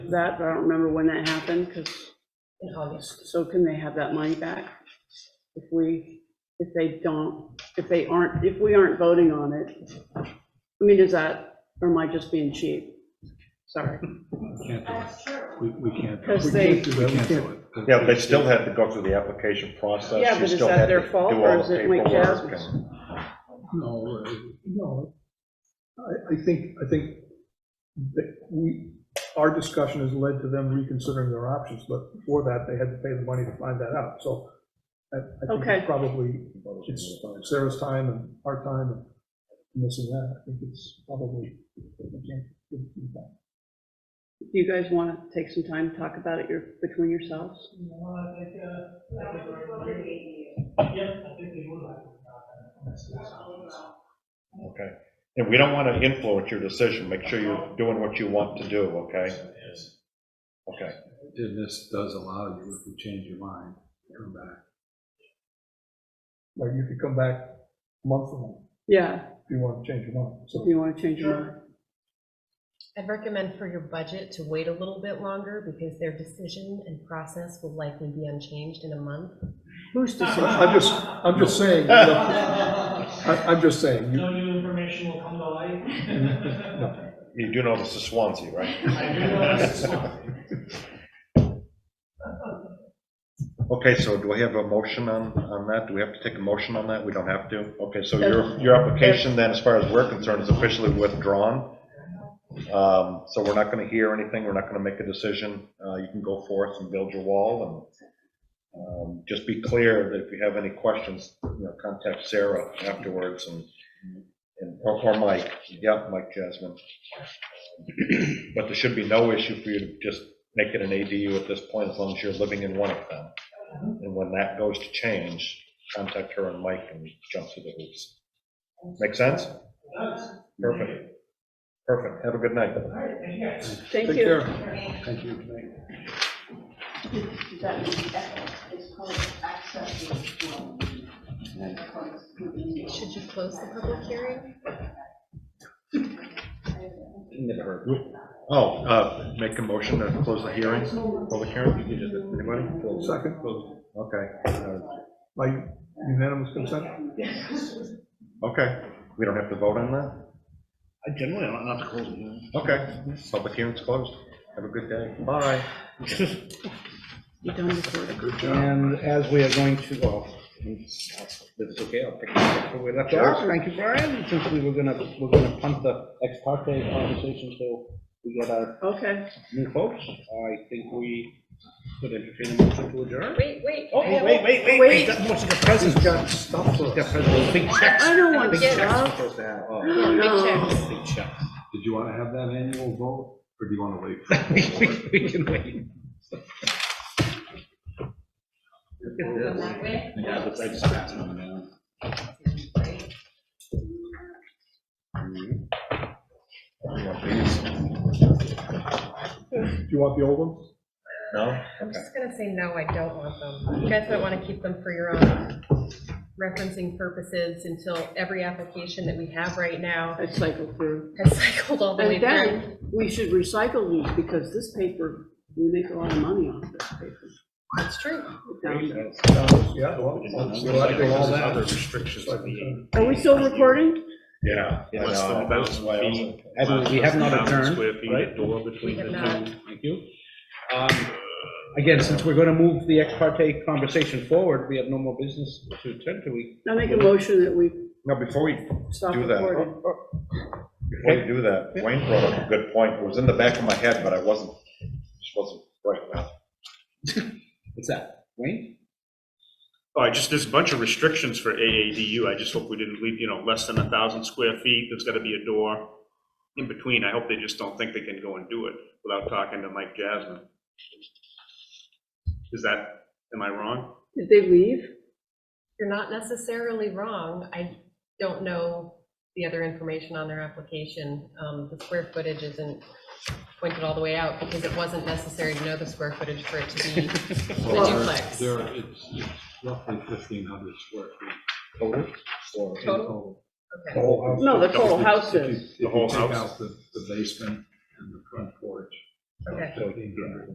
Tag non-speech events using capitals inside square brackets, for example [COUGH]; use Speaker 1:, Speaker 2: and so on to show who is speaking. Speaker 1: that, but I don't remember when that happened, because,
Speaker 2: in August.
Speaker 1: so can they have that money back? If we, if they don't, if they aren't, if we aren't voting on it? I mean, is that, or am I just being cheap? Sorry.
Speaker 3: Can't do it. We, we can't.
Speaker 1: Because
Speaker 3: we
Speaker 1: they-
Speaker 3: can't do it. We can't do it.
Speaker 4: Yeah, but they still have to go through the application process.
Speaker 1: Yeah,
Speaker 4: You
Speaker 1: but is
Speaker 4: still
Speaker 1: that
Speaker 4: have to
Speaker 1: their fault,
Speaker 4: do
Speaker 1: or
Speaker 4: all
Speaker 1: is
Speaker 4: the
Speaker 1: it Lake
Speaker 4: paperwork
Speaker 1: Jasper's?
Speaker 4: and-
Speaker 3: No, uh, no. I, I think, I think that we, our discussion has led to them reconsidering their options, but before that, they had to pay the money to find that out, so I, I think
Speaker 1: Okay.
Speaker 3: it's probably, it's Sarah's time and our time and this and that, I think it's probably, I can't give feedback.
Speaker 1: Do you guys want to take some time to talk about it your- between yourselves?
Speaker 4: Okay. And we don't want to influence your decision. Make sure you're doing what you want to do, okay? Okay.
Speaker 5: And this does allow you, if you change your mind, to come back.
Speaker 3: Like, you could come back a month from now
Speaker 1: Yeah,
Speaker 3: if you want to change your mind,
Speaker 1: do [LAUGHS]
Speaker 3: so.
Speaker 1: you want to change your mind?
Speaker 2: I'd recommend for your budget to wait a little bit longer because their decision and process will likely be unchanged in a month.
Speaker 1: Who's decision?
Speaker 3: I'm just, I'm just saying, you know, I- I'm just
Speaker 6: [LAUGHS]
Speaker 3: saying, you-
Speaker 6: No new information will come to light.
Speaker 3: no.
Speaker 4: You do know this is Swansea, right?
Speaker 6: [LAUGHS] I do know this is one.
Speaker 4: Okay, so do we have a motion on, on that? Do we have to take a motion on that? We don't have to? Okay, so your, your application then, as far as we're concerned, is officially withdrawn. Um, So we're not going to hear anything, we're not going to make a decision. Uh, You can go forth and build your wall and um, just be clear that if you have any questions, you know, contact Sarah afterwards and, and or or Mike, yeah, Mike Jasmine. But there should be no issue for you to just make it an ADU at this point, as long as you're living in one of them. And when that goes to change, contact her and Mike and jump through the hoops. Make sense? Perfect. Perfect. Have a good night.
Speaker 6: All right, thank you guys.
Speaker 1: Thank
Speaker 3: Take
Speaker 1: you.
Speaker 3: care.
Speaker 5: Thank you.
Speaker 7: that is called access withdrawal. That's called withdrawal.
Speaker 2: Should you close the public hearing?
Speaker 4: Oh, uh, make a motion to close the hearing, public hearing, anybody?
Speaker 3: Second,
Speaker 4: Okay, uh,
Speaker 3: by unanimous consent?
Speaker 4: okay, we don't have to vote on that? I generally don't have to close it. Okay, public hearing's closed. Have a good day. Bye.
Speaker 1: You done recording?
Speaker 8: And as we are going to, well, it's it's okay, I'll pick it up where we left off. Thank you, Brian, since we were gonna, we're gonna punt the ex parte conversation till we get our
Speaker 1: Okay,
Speaker 8: new folks. I think we could entertain a motion to adjourn.
Speaker 2: Wait, wait.
Speaker 8: Oh,
Speaker 2: I have-
Speaker 8: wait, wait, wait, wait, that's most of the presents.
Speaker 3: Got stuff for us.
Speaker 8: Got presents, big checks.
Speaker 1: I don't want
Speaker 8: Big checks we're
Speaker 1: stuff.
Speaker 8: supposed to have,
Speaker 1: I
Speaker 8: [LAUGHS] oh,
Speaker 1: don't know.
Speaker 8: big checks.
Speaker 5: Did you want to have that annual vote, or do you want to wait?
Speaker 8: [LAUGHS]
Speaker 5: for
Speaker 8: We-
Speaker 5: the vote?
Speaker 8: we- We can wait. Look at this. Yeah, but I just passed them down.
Speaker 3: Do you want the old ones?
Speaker 4: No?
Speaker 2: I'm just gonna say, no, I don't want them. You guys might want to keep them for your own referencing purposes until every application that we have right now
Speaker 1: I cycled through.
Speaker 2: has cycled all the way
Speaker 1: And
Speaker 2: through.
Speaker 1: then, we should recycle these, because this paper, we make a lot of money off this paper.
Speaker 2: That's true.
Speaker 3: Yeah, well,
Speaker 8: It's
Speaker 3: we'll have to do all
Speaker 8: like
Speaker 3: that.
Speaker 8: other restrictions on the-
Speaker 1: Are we still recording?
Speaker 4: Yeah. I
Speaker 8: Less
Speaker 4: know,
Speaker 8: than
Speaker 4: that was why I was-
Speaker 8: feet. As we have not adjourned, right?
Speaker 5: Door
Speaker 2: We have not.
Speaker 8: Thank you. Um, Again, since we're going to move the ex parte conversation forward, we have no more business to attend to. We
Speaker 1: I make a motion that we
Speaker 4: No, before we
Speaker 1: stop
Speaker 4: Do that.
Speaker 1: recording.
Speaker 4: Before you do that, Wayne brought up a good point. It was in the back of my head, but I wasn't, just wasn't right now.
Speaker 8: What's that, Wayne?
Speaker 9: Oh, I just, there's a bunch of restrictions for AADU, I just hope we didn't leave, you know, less than a thousand square feet, there's gotta be a door in between, I hope they just don't think they can go and do it without talking to Mike Jasmine. Is that, am I wrong?
Speaker 1: Did they leave?
Speaker 2: You're not necessarily wrong. I don't know the other information on their application. Um, The square footage isn't pointed all the way out because it wasn't necessary to know the square footage for it to be the duplex.
Speaker 5: There, it's it's roughly 1,500 square feet.
Speaker 8: Or-
Speaker 2: Total? Okay.
Speaker 1: No, the whole house
Speaker 5: If you-
Speaker 1: is.
Speaker 5: If you
Speaker 9: whole
Speaker 5: take
Speaker 9: house?
Speaker 5: out the the basement and the front porch,
Speaker 10: Okay.
Speaker 5: So, yeah.